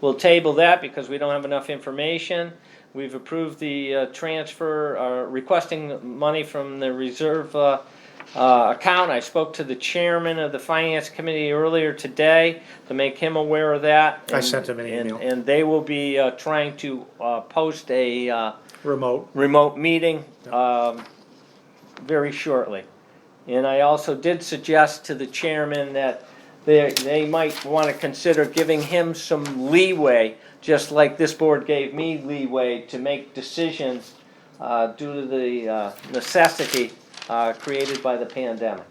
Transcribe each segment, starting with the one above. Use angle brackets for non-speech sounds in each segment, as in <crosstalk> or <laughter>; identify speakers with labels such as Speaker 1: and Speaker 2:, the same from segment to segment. Speaker 1: we'll table that because we don't have enough information. We've approved the uh, transfer, uh, requesting money from the reserve uh, uh, account. I spoke to the chairman of the finance committee earlier today to make him aware of that.
Speaker 2: I
Speaker 1: and-
Speaker 2: sent him an
Speaker 1: and-
Speaker 2: email.
Speaker 1: And they will be uh, trying to uh, post a uh,
Speaker 2: remote.
Speaker 1: remote meeting um, very shortly. And I also did suggest to the chairman that they, they might want to consider giving him some leeway, just like this board gave me leeway to make decisions uh, due to the uh, necessity uh, created by the pandemic.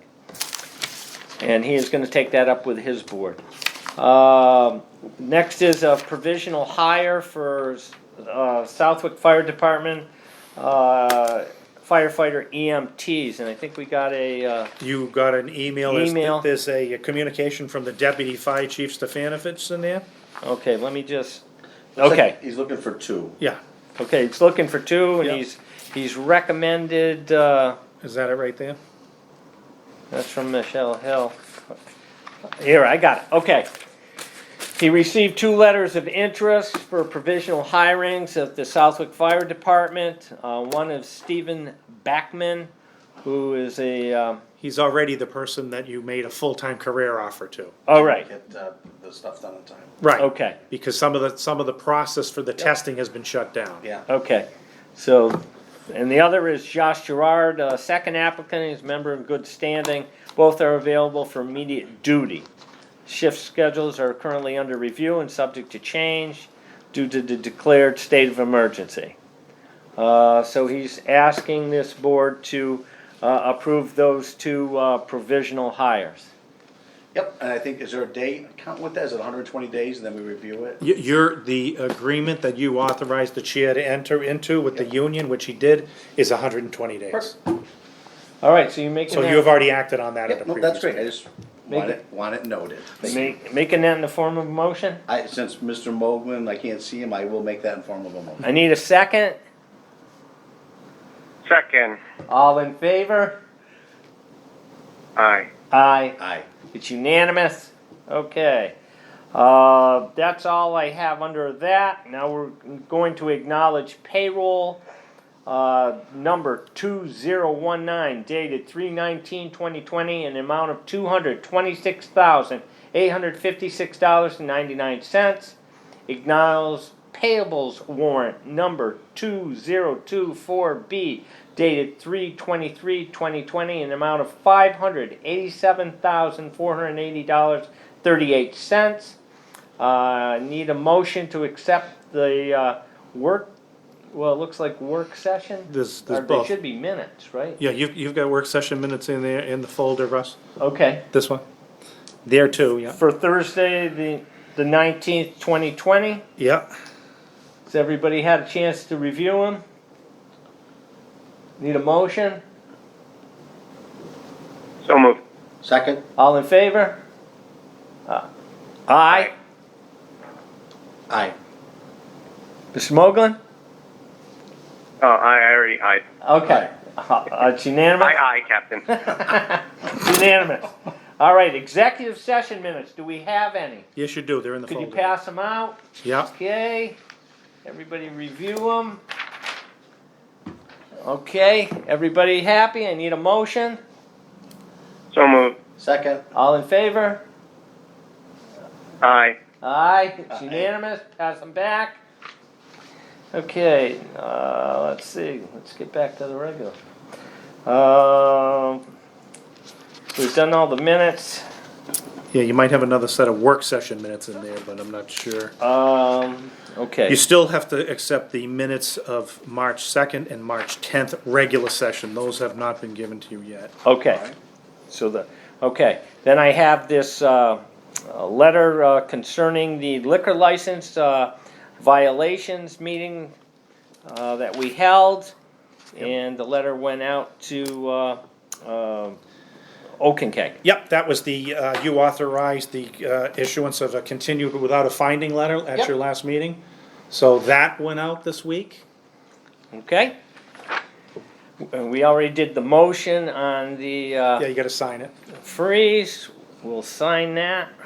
Speaker 1: And he is going to take that up with his board. Um, Next is a provisional hire for uh, Southwick Fire Department uh, firefighter EMTs, and I think we got a, uh,
Speaker 2: You got an email. Is-
Speaker 1: Email.
Speaker 2: There's a communication from the deputy fire chief Stefanovich in there?
Speaker 1: okay, let me just, okay,
Speaker 3: He's looking for two.
Speaker 2: Yeah,
Speaker 1: okay, he's looking for two, and
Speaker 2: Yeah.
Speaker 1: he's, he's recommended, uh,
Speaker 2: is that it right there?
Speaker 1: That's from Michelle Hill. Here, I got it, okay. He received two letters of interest for provisional hirings of the Southwick Fire Department. Uh, one of Stephen Backman, who is a, um,
Speaker 2: He's already the person that you made a full-time career offer to.
Speaker 1: all right,
Speaker 3: Get uh, the stuff done in time.
Speaker 2: Right.
Speaker 1: okay,
Speaker 2: Because some of the, some of the process for the testing has been shut down.
Speaker 3: Yeah.
Speaker 1: okay. So, and the other is Josh Gerard, uh, second applicant, he's a member in good standing. Both are available for immediate duty. Shift schedules are currently under review and subject to change due to the declared state of emergency. Uh, so he's asking this board to, uh, approve those two, uh, provisional hires.
Speaker 3: Yep, and I think, is there a date, count with that, is it hundred and twenty days and then we review it?
Speaker 2: Y- Your, the agreement that you authorized the chair to enter into with the union, which he did, is hundred and twenty days.
Speaker 1: All right, so you're making
Speaker 2: So
Speaker 1: that.
Speaker 2: you have already acted on that at a
Speaker 3: Yep, no,
Speaker 2: previous.
Speaker 3: that's great, I
Speaker 2: meeting.
Speaker 3: just
Speaker 1: Make
Speaker 3: want
Speaker 1: it-
Speaker 3: it, want it noted.
Speaker 1: Ma- Making that in the form of a motion?
Speaker 3: I, since Mr. Moglen, I can't see him, I will make that in form of a motion.
Speaker 1: I need a second.
Speaker 4: Second,
Speaker 1: All in favor?
Speaker 4: aye.
Speaker 1: Aye.
Speaker 3: Aye.
Speaker 1: It's unanimous. Okay. Uh, that's all I have under that. Now we're going to acknowledge payroll uh, number 2019 dated 319-2020 an amount of $226,856.99. Acknowledge payables warrant number 2024B dated 323-2020 an amount of $587,480.38. Uh, need a motion to accept the uh, work, well, it looks like work session?
Speaker 2: There's- there's
Speaker 1: Or they
Speaker 2: both.
Speaker 1: should be minutes, right?
Speaker 2: Yeah, you've, you've got work session minutes in there, in the folder, Russ?
Speaker 1: Okay.
Speaker 2: This one? There too, yeah.
Speaker 1: For Thursday, the, the nineteenth, twenty twenty,
Speaker 2: Yeah.
Speaker 1: has everybody had a chance to review them? Need a motion?
Speaker 4: So moved.
Speaker 3: Second?
Speaker 1: All in favor? Uh, Aye.
Speaker 3: Aye.
Speaker 1: Mr. Moglen?
Speaker 4: Oh, I already, aye.
Speaker 1: Okay. Uh, It's unanimous? <laughs>
Speaker 4: Aye, aye, Captain.
Speaker 1: Unanimous. All right, executive session minutes, do we have any?
Speaker 2: Yes, you do, they're in the
Speaker 1: Could
Speaker 2: folder.
Speaker 1: you pass them out?
Speaker 2: Yeah,
Speaker 1: Okay, everybody review them. Okay, everybody happy? I need a motion.
Speaker 4: So moved,
Speaker 3: Second?
Speaker 1: All in favor?
Speaker 4: aye.
Speaker 1: Aye, it's
Speaker 3: Aye.
Speaker 1: unanimous, pass them back. Okay, uh, let's see, let's get back to the regular. Um, we've done all the minutes,
Speaker 2: yeah, you might have another set of work session minutes in there, but I'm not sure.
Speaker 1: um, okay.
Speaker 2: You still have to accept the minutes of March second and March tenth regular session, those have not been given to you yet.
Speaker 1: Okay, so the, okay, then I have this, uh, uh, letter uh, concerning the liquor license, uh, violations meeting, uh, that we held. And the letter went out to, uh, um Okeechobee.
Speaker 2: Yep, that was the, uh, you authorized the, uh, issuance of a continued without a finding letter at your last meeting. So that went out this week,
Speaker 1: okay? Uh, We already did the motion on the,
Speaker 2: yeah,
Speaker 1: uh,
Speaker 2: you gotta sign it.
Speaker 1: freeze, we'll sign that.